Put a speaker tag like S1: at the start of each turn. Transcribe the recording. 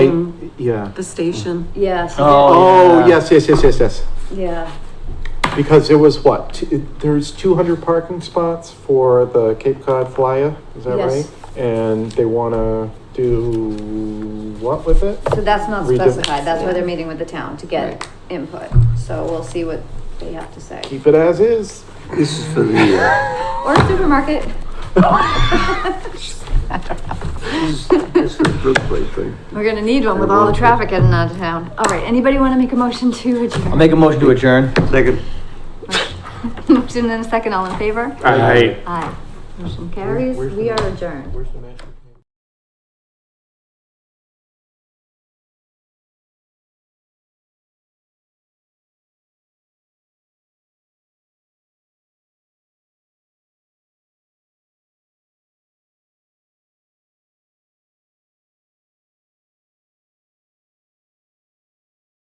S1: yeah.
S2: the station.
S3: Yeah, so,
S1: Mm-hmm. Oh,
S4: yeah.
S1: yes, yes, yes, yes, yes.
S3: yeah,
S1: Because it was what, t- there's two hundred parking spots for the Cape Cod Flyer, is that right?
S3: Yes.
S1: And they wanna do what with it?
S3: so that's not
S1: Redo.
S3: specified, that's why
S1: Yeah.
S3: they're meeting with the town to
S4: Right.
S3: get input, so we'll see what they have to say.
S1: Keep it as is.
S4: This is for the, uh,
S3: Or a supermarket,
S4: this is, this is the Brook Place, right?
S3: we're gonna need one with all the traffic heading out of town. All right, anybody wanna make a motion to
S4: I'll
S3: adjourn?
S4: make a motion to adjourn. Second.
S3: Motion and a second, all in favor?
S4: Aye.
S3: Aye. Motion carries,
S1: Where's the
S3: we are
S1: motion?
S3: adjourned.
S1: Where's the magic?